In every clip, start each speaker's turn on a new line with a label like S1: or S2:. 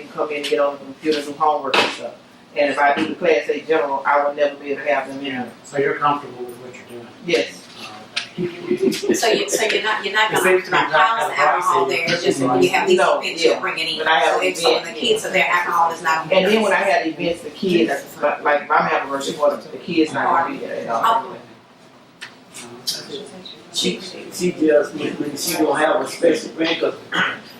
S1: and come in and get on the computer, do homework and stuff. And if I do the class A general, I will never be able to have them in.
S2: Yeah, so you're comfortable with what you're doing.
S1: Yes,
S2: Uh,
S3: So you, so you're not, you're not
S2: It
S3: gonna,
S2: seems to
S3: you're
S2: be
S3: not
S2: not
S3: piling the alcohol there, it's just when you have these
S1: No,
S3: events,
S1: yeah.
S3: you'll bring it in.
S1: But I have
S3: So if, so when the
S1: events,
S3: kids are there, alcohol is not.
S1: and then when I had events, the kids, like like my member, she wanted the kids not gonna be there at all.
S2: Uh,
S4: She, she just, when she gonna have a special event, 'cause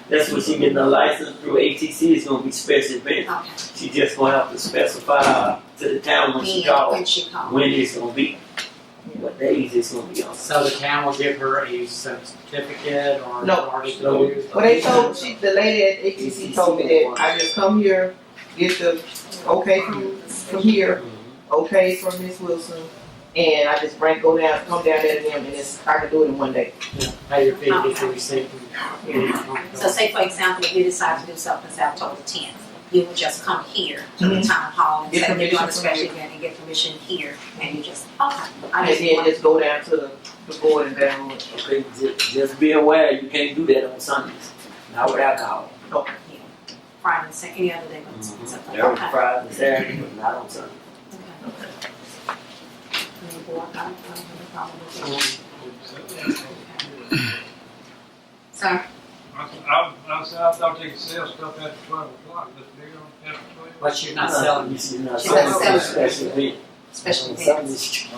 S4: that's when she getting her license through ATC, it's gonna be special event.
S3: Okay.
S4: She just gonna have to specify to the town when she
S3: When,
S4: calls,
S3: when she calls.
S4: when it's gonna be, what days it's gonna be on.
S2: So the town will give her a certificate or an
S1: No.
S2: article?
S1: Well, they told, she, the lady at ATC told me that I just come here, get the okay from, from here, okay from Miss Wilson, and I just bring, go down, come down there to them, and it's, I can do it in one day.
S2: Yeah, Pay your fee, get your receipt. and-
S3: So say for example, if you decide to do something October tenth, you would just come here to the town hall
S1: Mm-hmm.
S3: and
S1: Get
S3: say you're doing a
S1: permission from
S3: special
S1: you.
S3: event and get permission here and you just, okay.
S1: And
S3: I just
S1: then
S3: want,
S1: just go down to the, the board and down,
S4: Okay, just, just be aware, you can't do that on Sundays, not with alcohol.
S3: Friday, and Saturday, any other day, but
S1: Mm-hmm.
S4: Mhm.
S3: something,
S4: Every
S3: okay.
S4: Friday, and Saturday, but not on Sunday.
S3: Okay. And the board, I don't have a problem with
S1: Mm-hmm.
S3: it. Sir,
S5: I, I, I said, I thought they could sell stuff after twelve o'clock, this big on after twelve.
S2: But you're not selling,
S4: She's not
S3: She's
S4: selling,
S3: not selling.
S4: special event.
S3: special
S4: On
S3: events.
S4: Sundays,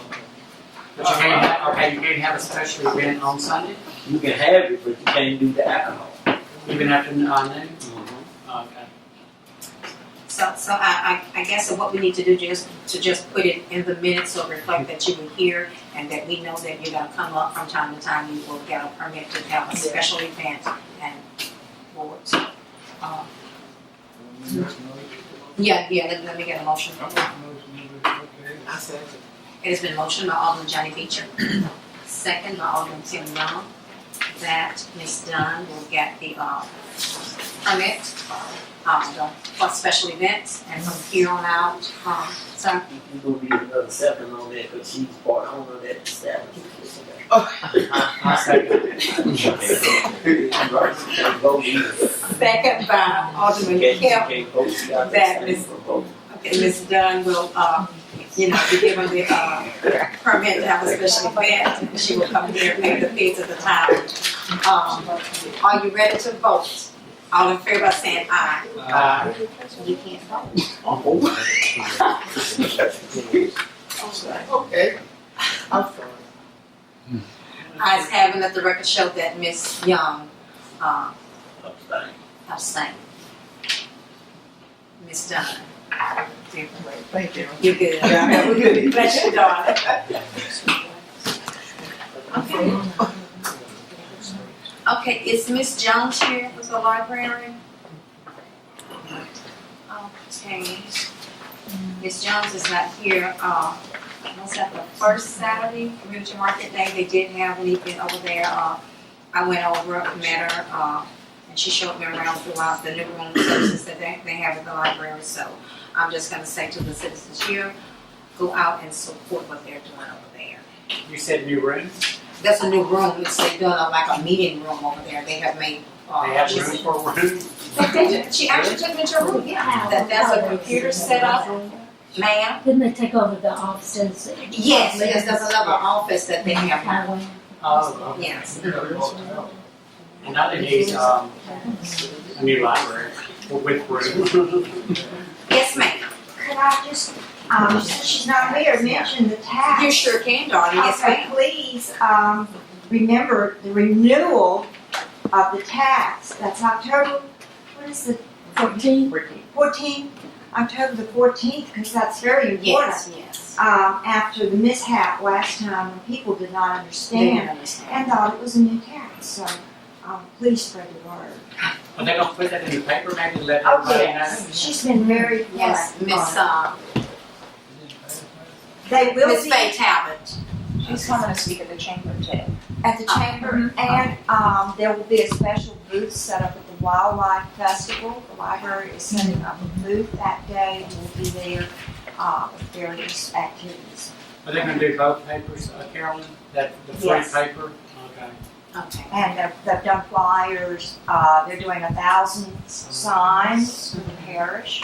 S2: but you can't, have- okay, you can't have a special event on Sunday,
S4: You can have it, but you can't do the alcohol.
S2: even after uh, noon? Okay.
S3: So, so I, I, I guess that what we need to do just, to just put it in the minutes or reflect that you were here and that we know that you're gonna come up from time to time, you will get a permit to have a special event and boards. Um, Yeah, yeah, let, let me get a motion.
S5: I don't know, okay.
S1: I said,
S3: It has been motioned by Alderman Johnny Beecher, second by Alderman Tim Young, that Ms. Dunn will get the, uh, permit, um, the- for special events and from here on out, um, so
S4: You gonna be another seven on that, cause she's part owner of that establishment.
S2: I second.
S3: Second by uh, Alderman Kemp, That is- okay, Ms. Dunn will, uh, you know, be given the, uh, permit to have a special event, and she will come here and pay the fees at the time. Um, are you ready to vote? All in favor of saying aye?
S2: Uh,
S3: You can't vote. Oh,
S1: okay, I'm sorry.
S3: Eyes having let the record show that Ms. Young, uh, abstained. Ms. Dunn.
S1: Thank you.
S3: You're good.
S1: Yeah, have a good evening.
S3: Bless you, darling. Okay. Okay, is Miss Jones here as a librarian? Okay. Miss Jones is not here, uh, was that the first Saturday, Community Market Day, they did have an event over there, uh, I went over, met her, uh, and she showed me around throughout the new room services that they, they have at the library, so I'm just gonna say to the citizens here, go out and support what they're doing over there.
S2: you said new room,
S3: That's a new room, it's like done a- like a meeting room over there, they have made, uh.
S2: they have
S3: she's-
S2: room for room?
S3: They did, she actually took me to a room, yeah, that, that's a computer setup, ma'am.
S6: Didn't they take over the offices?
S3: Yes, yes, there's another office that they have now,
S6: Highway.
S2: Oh, okay.
S3: yes.
S2: And I didn't use, um, a new library with room.
S3: Yes, ma'am,
S7: Could I just, um, since she's not here, mention the tax?
S3: you sure can, darling, yes,
S7: Okay,
S3: ma'am.
S7: please, um, remember the renewal of the tax, that's October, what is the
S6: Fourteen.
S7: fourteenth? October the fourteenth, because that's very important.
S3: Yes, yes.
S7: Um, after the mishap last time, when people did not
S3: They
S7: understand
S3: understand.
S7: and thought it was a new tax, so, um, please spread the word.
S2: Are they gonna put that in the paper, maybe let
S7: Oh,
S2: everybody know?
S7: yes, she's been very
S3: Yes,
S7: proactive.
S3: Miss, uh,
S7: They will
S3: Miss
S7: be.
S3: Faye Talbot.
S8: She's coming to speak at the chamber today. Uh, mm-hmm.
S7: at the chamber, and um, there will be a special booth set up at the Wildlife Festival. The library is setting up a booth that day, and we'll be there uh, with various activities.
S2: Are they gonna do both papers, uh, Carolyn, that, the free
S7: Yes.
S2: paper? Okay.
S3: Okay.
S7: And they've, they've done flyers, uh, they're doing a thousand signs for the parish.